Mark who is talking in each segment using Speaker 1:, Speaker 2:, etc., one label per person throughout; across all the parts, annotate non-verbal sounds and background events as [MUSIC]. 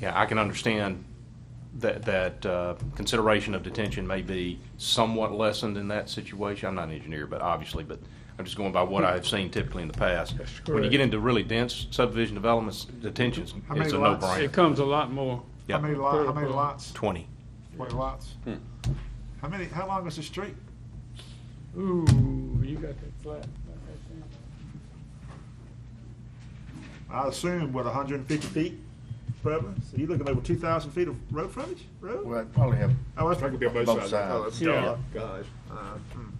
Speaker 1: yeah, I can understand that, that uh, consideration of detention may be somewhat lessened in that situation. I'm not an engineer, but obviously, but I'm just going by what I've seen typically in the past.
Speaker 2: That's
Speaker 1: When you
Speaker 2: correct.
Speaker 1: get into really dense subdivision developments, detention is
Speaker 3: How many
Speaker 1: a
Speaker 3: lots?
Speaker 1: no-brainer.
Speaker 2: It comes a lot more.
Speaker 3: How many lot, how many
Speaker 2: Critical.
Speaker 3: lots?
Speaker 1: Twenty.
Speaker 3: Twenty lots? How many, how long is the street?
Speaker 2: Ooh, you got that flat.
Speaker 3: I assume what, hundred and fifty feet probably? So you're looking at over two thousand feet of road frontage, road?
Speaker 4: Well, I'd probably have,
Speaker 3: Oh, that's probably gonna be on both
Speaker 4: Both
Speaker 3: sides. Oh, that's
Speaker 2: sides.
Speaker 3: dark.
Speaker 5: Gosh, uh, hmm,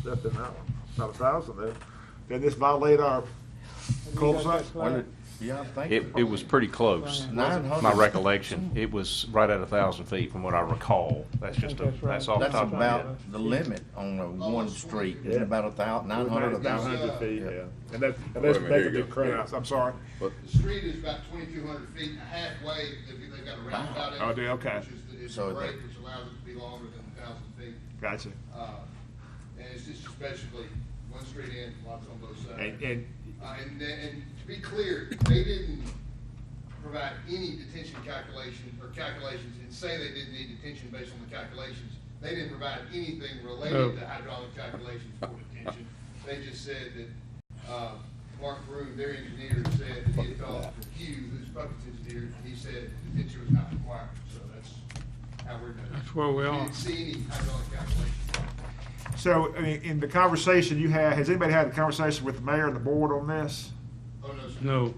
Speaker 5: stepped in that one, about a thousand there.
Speaker 3: Did this violate our cul-de-sac?
Speaker 4: well, yeah, I think.
Speaker 1: It, it was pretty close.
Speaker 4: Nine hundred.
Speaker 1: My recollection, it was right at a thousand feet from what I recall. That's just a,
Speaker 2: That's right.
Speaker 1: that's off the
Speaker 4: That's
Speaker 1: top of my head.
Speaker 4: about the limit on a one street, It's
Speaker 3: Yeah.
Speaker 4: about a thou, nine hundred, a thousand.
Speaker 3: 900 feet,
Speaker 4: Yeah.
Speaker 3: yeah. And that, and
Speaker 5: Wait a
Speaker 3: that's,
Speaker 5: minute,
Speaker 3: that's
Speaker 5: here
Speaker 3: a
Speaker 5: you
Speaker 3: big
Speaker 5: go.
Speaker 3: crowd, I'm sorry.
Speaker 6: The street is about twenty-two hundred feet and halfway, they've, they've got a roundabout. in it,
Speaker 3: Oh, they- okay.
Speaker 6: Which is, the- is
Speaker 4: So
Speaker 6: the
Speaker 4: the-
Speaker 6: break, which allows it to be longer than a thousand feet.
Speaker 3: Gotcha.
Speaker 6: Uh, And it's just basically one street in, lots on both
Speaker 3: And,
Speaker 6: sides.
Speaker 3: and,
Speaker 6: Uh, and, then- and to be clear, they didn't provide any detention calculation or calculations and say they didn't need detention based on the calculations. They didn't provide anything
Speaker 2: No.
Speaker 6: related to hydraulic calculations for detention. They just said that, uh, Mark Brew, their engineer, said that he had called for Hugh, who's Puckett's engineer, and he said detention was not required, so that's how we're doing.
Speaker 2: That's where we are.
Speaker 6: didn't see any hydraulic calculations.
Speaker 3: so, I mean, in the conversation you had, has anybody had a conversation with the mayor and the board on this?
Speaker 6: Oh, no, sir.
Speaker 2: No,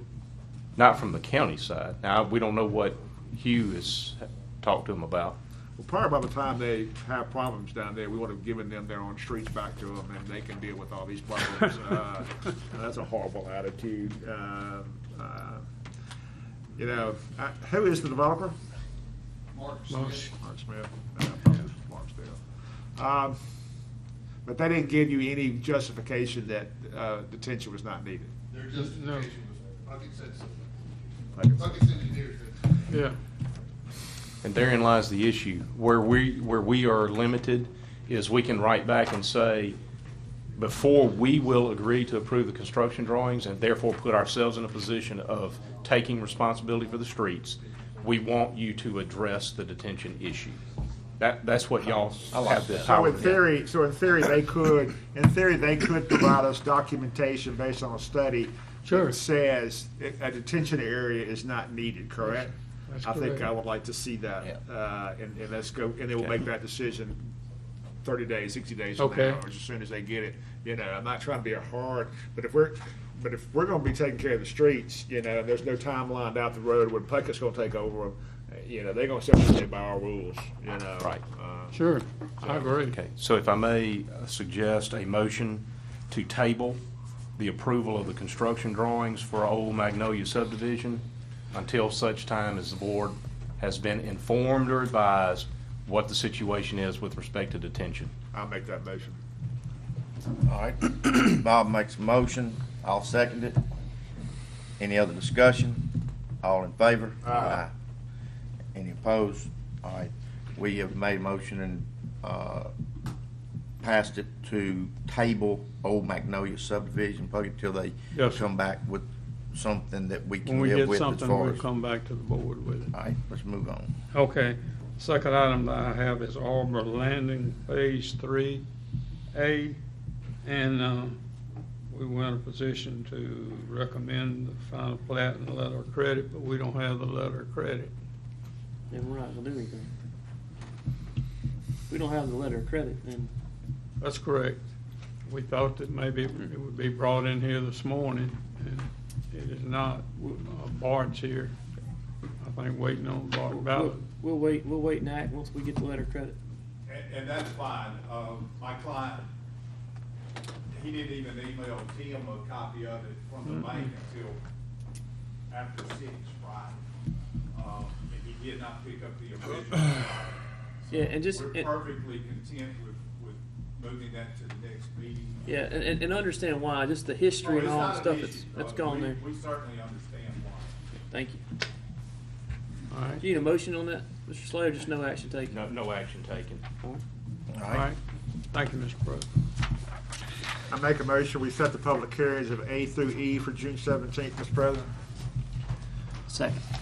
Speaker 1: Not from the county side. Now, we don't know what Hugh has talked to him about.
Speaker 3: Well, probably by the time they have problems down there, we would have given them their own streets back to them, and they can deal with all these problems. Uh, That's a horrible attitude. Uh, uh, You know, I- who is the developer?
Speaker 6: Mark
Speaker 2: Mark.
Speaker 6: Smith.
Speaker 3: Mark Smith. Uh, probably it was Mark Smith. Um, But they didn't give you any justification that uh, detention was not needed.
Speaker 6: Their justification
Speaker 2: No.
Speaker 6: was, Puckett said so.
Speaker 3: Puckett said-
Speaker 6: Puckett's engineer said so.
Speaker 2: yeah.
Speaker 1: And therein lies the issue. Where we, where we are limited is we can write back and say, before we will agree to approve the construction drawings and therefore put ourselves in a position of taking responsibility for the streets, we want you to address the detention issue. That, that's what y'all have the
Speaker 3: So
Speaker 1: power
Speaker 3: in
Speaker 1: to do.
Speaker 3: theory, so in theory, they could, in theory, they could provide us documentation based on a study
Speaker 2: Sure.
Speaker 3: that says a detention area is not needed, correct?
Speaker 2: That's
Speaker 3: I think
Speaker 2: correct.
Speaker 3: I would like to see that, uh, and, and let's go, and they will make that decision thirty days, sixty days from
Speaker 2: Okay.
Speaker 3: now, or as soon as they get it. You know, I'm not trying to be a hard, but if we're, but if we're gonna be taking care of the streets, you know, there's no time lined out the road when Puckett's gonna take over, uh, you know, they're gonna separate by our rules, you know.
Speaker 1: Right.
Speaker 3: Uh,
Speaker 2: Sure, I agree.
Speaker 1: Okay, so if I may uh, suggest a motion to table the approval of the construction drawings for Old Magnolia subdivision until such time as the board has been informed or advised what the situation is with respect to detention.
Speaker 3: I'll make that motion.
Speaker 4: All right, [CLEARS THROAT] Bob makes a motion, I'll second it. Any other discussion? All in favor? Aye. Any opposed? All right, we have made a motion and, uh, passed it to table Old Magnolia subdivision, probably till they
Speaker 2: Yes, sir.
Speaker 4: come back with something that we
Speaker 2: When
Speaker 4: can
Speaker 2: we
Speaker 4: live
Speaker 2: get
Speaker 4: with as
Speaker 2: something,
Speaker 4: far
Speaker 2: we'll
Speaker 4: as. All
Speaker 2: come back to the board with it.
Speaker 4: right, let's move on.
Speaker 2: Okay, second item that I have is Arbor Landing Phase Three A. And, um, we were in a position to recommend the final plat and letter of credit, but we don't have the letter of credit.
Speaker 7: then we're not gonna do anything. If We don't have the letter of credit, then
Speaker 2: That's correct. We thought that maybe it would be brought in here this morning, and it is not. Uh, Bart's here, I think, waiting on Bart
Speaker 7: we'll,
Speaker 2: Ballard.
Speaker 7: we'll wait, we'll wait and act once we get the letter of credit.
Speaker 8: And, and that's fine. Um, my client, he didn't even email Tim a copy of it from the bank
Speaker 7: Mm-hmm.
Speaker 8: until after six Friday. Um, and he did not pick up the
Speaker 3: [CLEARS THROAT]
Speaker 8: original.
Speaker 7: Yeah, and just,
Speaker 8: We're
Speaker 7: and-
Speaker 8: perfectly content with, with moving that to the next meeting.
Speaker 7: yeah, and, and- and understand why, just the history and all the stuff that's, that's gone there.
Speaker 8: We certainly understand why.
Speaker 7: Thank you.
Speaker 2: All right,
Speaker 7: Do you need a motion on that, Mr. Slater? Just no action taken.
Speaker 1: No, no action taken.
Speaker 4: All
Speaker 2: all
Speaker 4: right,
Speaker 2: right. Thank you, Mr. Brooks.
Speaker 3: I make a motion, we set the public hearings of A through E for June seventeenth, Mr. President.
Speaker 7: Second.